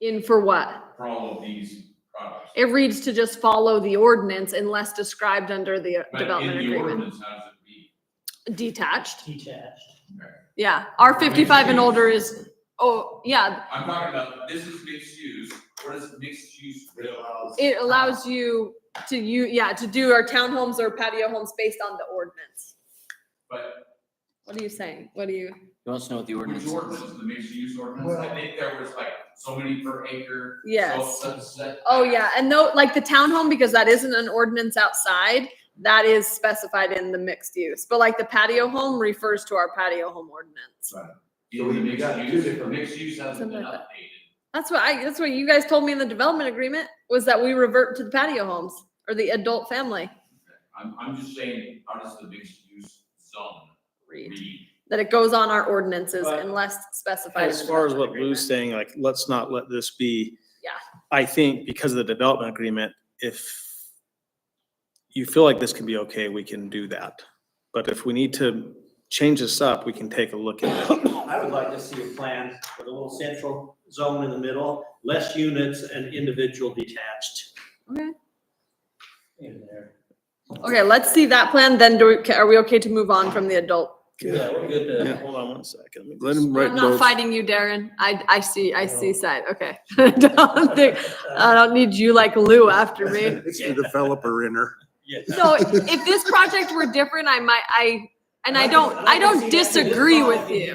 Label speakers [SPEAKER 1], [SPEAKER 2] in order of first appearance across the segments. [SPEAKER 1] in for what?
[SPEAKER 2] for all of these products.
[SPEAKER 1] It reads to just follow the ordinance unless described under the
[SPEAKER 2] But in
[SPEAKER 1] development
[SPEAKER 2] the
[SPEAKER 1] agreement.
[SPEAKER 2] ordinance, how does it be?
[SPEAKER 1] Detached,
[SPEAKER 3] detached.
[SPEAKER 1] yeah. R fifty-five and older is, oh, yeah,
[SPEAKER 2] I'm talking about, this is mixed use, what is mixed use real?
[SPEAKER 1] it allows you to, you, yeah, to do our townhomes or patio homes based on the ordinance.
[SPEAKER 2] But
[SPEAKER 1] What are you saying? What do you,
[SPEAKER 4] He wants to know what the ordinance
[SPEAKER 2] which
[SPEAKER 4] is.
[SPEAKER 2] ordinance, the mixed use ordinance, I
[SPEAKER 3] Well-
[SPEAKER 2] think there was like so many per acre. so
[SPEAKER 1] yes.
[SPEAKER 2] set- set-
[SPEAKER 1] Oh, yeah, and though, like the townhome, because that isn't an ordinance outside, that is specified in the mixed use. But like the patio home refers to our patio home ordinance.
[SPEAKER 2] So
[SPEAKER 5] we-
[SPEAKER 2] the
[SPEAKER 5] we
[SPEAKER 2] mixed
[SPEAKER 5] got two
[SPEAKER 2] use,
[SPEAKER 5] different-
[SPEAKER 2] Mixed use hasn't been
[SPEAKER 1] Something like
[SPEAKER 2] updated.
[SPEAKER 1] That's what I, that's what you guys told me in the development agreement, was that we revert to the patio homes or the adult family
[SPEAKER 2] I'm, I'm just saying, how does the mixed use zone
[SPEAKER 1] read.
[SPEAKER 2] read?
[SPEAKER 1] That it goes on our ordinances
[SPEAKER 3] But-
[SPEAKER 1] unless specified. in
[SPEAKER 6] As
[SPEAKER 1] the
[SPEAKER 6] far as what
[SPEAKER 1] development
[SPEAKER 6] Lou's saying, like, let's not let this be.
[SPEAKER 1] Yeah.
[SPEAKER 6] I think because of the development agreement, if you feel like this can be okay, we can do that. But if we need to change this up, we can take a look at it.
[SPEAKER 3] I would like to see a plan with a little central zone in the middle, less units and individual detached
[SPEAKER 1] agreement.
[SPEAKER 3] in there.
[SPEAKER 1] Okay, okay, let's see that plan, then do we, ca- are we okay to move on from the adult?
[SPEAKER 3] Yeah, we're good
[SPEAKER 6] Yeah,
[SPEAKER 3] to.
[SPEAKER 6] Hold on one second. me
[SPEAKER 5] Let
[SPEAKER 6] just-
[SPEAKER 5] him write
[SPEAKER 1] I'm not
[SPEAKER 5] notes.
[SPEAKER 1] fighting you, Darren. I, I see, I see side, okay. Don't think, I don't need you like Lou after me.
[SPEAKER 5] It's the developer in her.
[SPEAKER 3] Yeah.
[SPEAKER 1] So if this project were different, I might, I, and I don't, I don't disagree with you.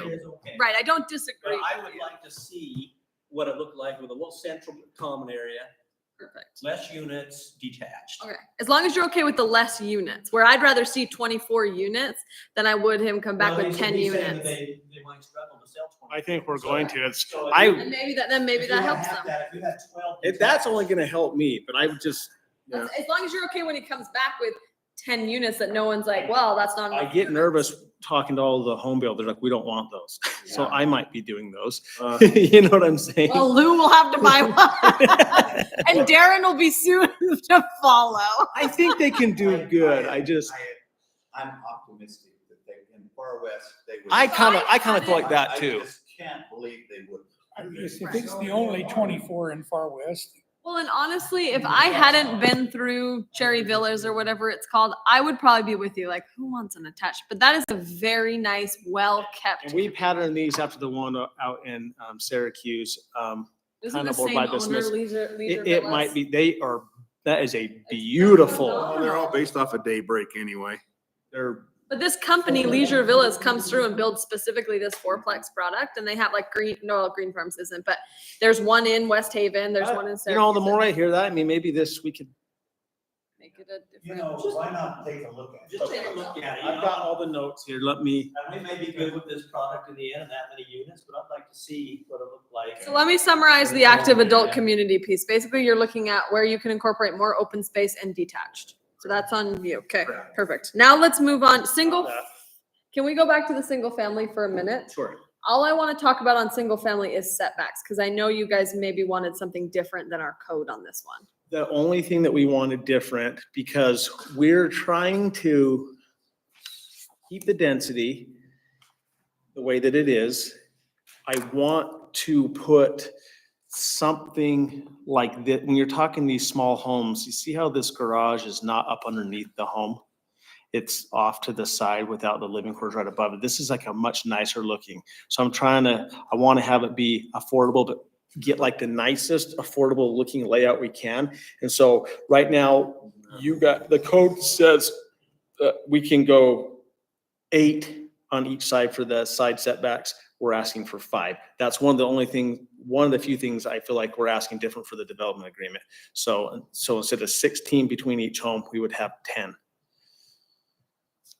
[SPEAKER 1] Right, I don't
[SPEAKER 3] But
[SPEAKER 1] disagree.
[SPEAKER 3] I
[SPEAKER 1] with
[SPEAKER 3] would
[SPEAKER 1] you.
[SPEAKER 3] like to see what it looked like with a little central common area,
[SPEAKER 1] Perfect.
[SPEAKER 3] less units detached.
[SPEAKER 1] Okay, as long as you're okay with the less units, where I'd rather see twenty-four units than I would him come back
[SPEAKER 3] Well,
[SPEAKER 1] with
[SPEAKER 3] he's-
[SPEAKER 1] ten
[SPEAKER 3] he's saying that
[SPEAKER 1] units.
[SPEAKER 3] They, they might struggle to sell twenty.
[SPEAKER 6] I think we're going to. It's,
[SPEAKER 3] So if
[SPEAKER 6] I-
[SPEAKER 3] you-
[SPEAKER 1] And maybe that, then maybe
[SPEAKER 3] if you
[SPEAKER 1] that
[SPEAKER 3] wanna
[SPEAKER 1] helps them.
[SPEAKER 3] have that, If you have twelve.
[SPEAKER 6] it- that's only gonna help me, but I would just,
[SPEAKER 1] As as long as you're okay when he comes back with ten units that no one's like, well, that's not.
[SPEAKER 6] I
[SPEAKER 1] enough
[SPEAKER 6] get
[SPEAKER 1] units."
[SPEAKER 6] nervous talking to all the home builders, like, we don't want those. So I might be doing those.
[SPEAKER 5] Uh,
[SPEAKER 6] You know what I'm saying?
[SPEAKER 1] Well, Lou will have to buy one. And Darren will be soon to follow.
[SPEAKER 6] I think they can do good. I just,
[SPEAKER 5] I'm optimistic that they, in the far west, they would.
[SPEAKER 6] I kinda, I kinda feel like that
[SPEAKER 5] I
[SPEAKER 6] too.
[SPEAKER 5] just can't believe they would.
[SPEAKER 7] If it's the only twenty-four in Far West,
[SPEAKER 1] Well, and honestly, if I hadn't been through Cherry Villas or whatever it's called, I would probably be with you. Like, who wants an attached? But that is a very nice, well
[SPEAKER 6] And
[SPEAKER 1] kept.
[SPEAKER 6] we patterned these after the one out in um, Syracuse. Um,
[SPEAKER 1] Isn't the
[SPEAKER 6] kind of bored
[SPEAKER 1] same
[SPEAKER 6] by
[SPEAKER 1] owner
[SPEAKER 6] dismiss-
[SPEAKER 1] Leisure, Leisure
[SPEAKER 6] It, it might
[SPEAKER 1] Villas?
[SPEAKER 6] be, they are, that is a beautiful,
[SPEAKER 5] Well, they're all based off a daybreak anyway.
[SPEAKER 6] they're,
[SPEAKER 1] But this company, Leisure Villas, comes through and builds specifically this fourplex product, and they have like green, no, Green Farms isn't, but there's one in West Haven, there's
[SPEAKER 6] Uh,
[SPEAKER 1] one in
[SPEAKER 6] you
[SPEAKER 1] Syracuse.
[SPEAKER 6] know, the more I hear that, I mean, maybe this, we could.
[SPEAKER 1] Make it a
[SPEAKER 5] You
[SPEAKER 1] different.
[SPEAKER 5] know, why not take a look at it?
[SPEAKER 3] Just take a look at it, you
[SPEAKER 6] I've got
[SPEAKER 3] know,
[SPEAKER 6] all the notes here. Let me,
[SPEAKER 3] and we may be good with this product in the end and that many units, but I'd like to see what it looked like.
[SPEAKER 1] So let me summarize the active adult community piece. Basically, you're looking at where you can incorporate more open space and detached. So that's on you. Okay, perfect. Now let's move on.
[SPEAKER 3] Uh,
[SPEAKER 1] Single, can we go back to the single family for a minute?
[SPEAKER 6] sure.
[SPEAKER 1] All I want to talk about on single family is setbacks, because I know you guys maybe wanted something different than our code on this one.
[SPEAKER 6] The only thing that we wanted different, because we're trying to keep the density the way that it is. I want to put something like that, when you're talking these small homes, you see how this garage is not up underneath the home? It's off to the side without the living quarters right above it. This is like a much nicer looking. So I'm trying to, I want to have it be affordable, but get like the nicest affordable looking layout we can. And so right now, you got, the code says that we can go eight on each side for the side setbacks. We're asking for five. That's one of the only thing, one of the few things I feel like we're asking different for the development agreement. So, so instead of sixteen between each home, we would have ten.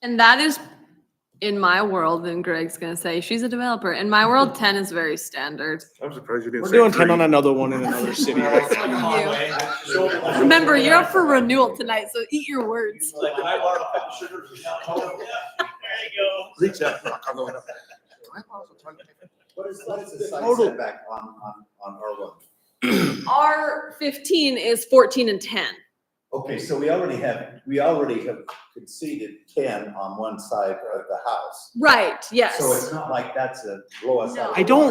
[SPEAKER 1] And that is, in my world, and Greg's gonna say, she's a developer. In my world,
[SPEAKER 5] Mm-hmm.
[SPEAKER 1] ten is very standard.
[SPEAKER 5] I'm surprised you didn't
[SPEAKER 6] We're
[SPEAKER 5] say
[SPEAKER 6] doing ten
[SPEAKER 5] three.
[SPEAKER 6] on another one in another city.
[SPEAKER 1] Remember, you're up for renewal tonight, so eat your words.
[SPEAKER 3] Like, can I borrow a cup of sugar? Oh, yeah, There you go.
[SPEAKER 5] Reach out. I'm going up. What is, what is the side
[SPEAKER 6] Total.
[SPEAKER 5] setback on, on, on R one?
[SPEAKER 1] R fifteen is fourteen and ten.
[SPEAKER 5] Okay, so we already have, we already have conceded ten on one side of the house.
[SPEAKER 1] Right, yes.
[SPEAKER 5] So it's not like that's a blow us out. of
[SPEAKER 1] No.
[SPEAKER 5] the
[SPEAKER 6] I don't